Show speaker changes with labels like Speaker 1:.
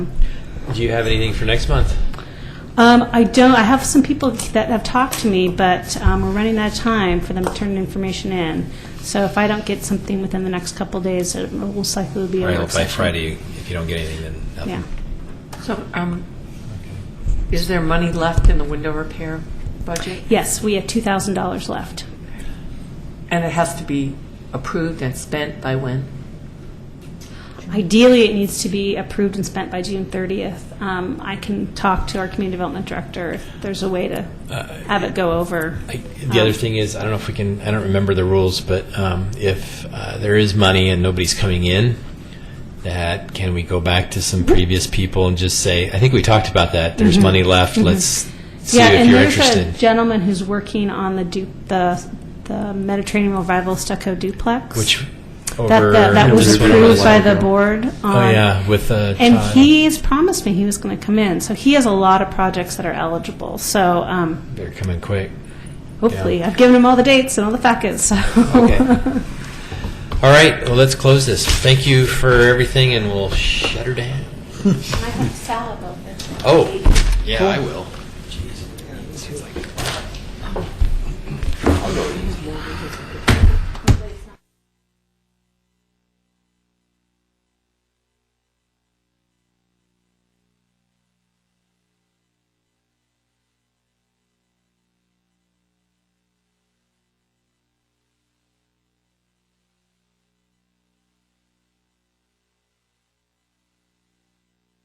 Speaker 1: Do you have anything for next month?
Speaker 2: Um, I don't, I have some people that have talked to me, but um, we're running out of time for them to turn information in. So if I don't get something within the next couple days, it most likely will be a
Speaker 1: Or
Speaker 2: work
Speaker 1: by
Speaker 2: session.
Speaker 1: Friday, if you don't get anything, then nothing.
Speaker 2: Yeah.
Speaker 3: So, um, is there money left in the window repair budget?
Speaker 2: Yes, we have $2,000 left.
Speaker 3: And it has to be approved and spent by when?
Speaker 2: Ideally, it needs to be approved and spent by June 30th. Um, I can talk to our community development director if there's a way to have it go over.
Speaker 1: Uh,
Speaker 2: Um,
Speaker 1: I- The other thing is, I don't know if we can, I don't remember the rules, but um, if uh, there is money and nobody's coming in, that, can we go back to some previous people and just say, I think we talked about that, there's money left, let's see
Speaker 2: Mm-hmm. yeah,
Speaker 1: if
Speaker 2: and
Speaker 1: you're
Speaker 2: there's a
Speaker 1: interested.
Speaker 2: gentleman who's working on the du- the the Mediterranean Revival stucco duplex.
Speaker 1: Which,
Speaker 2: that,
Speaker 1: over.
Speaker 2: that, that was
Speaker 1: this one was-
Speaker 2: approved by the board. Um,
Speaker 1: Oh, yeah, with uh
Speaker 2: And
Speaker 1: Todd.
Speaker 2: he's promised me he was going to come in. So he has a lot of projects that are eligible. So um,
Speaker 1: They're coming quick.
Speaker 2: hopefully, I've given him all the dates and all the packets. So
Speaker 1: Okay. All right, well, let's close this. Thank you for everything, and we'll shut her down.
Speaker 2: I have salad over.
Speaker 1: Oh, yeah, I will.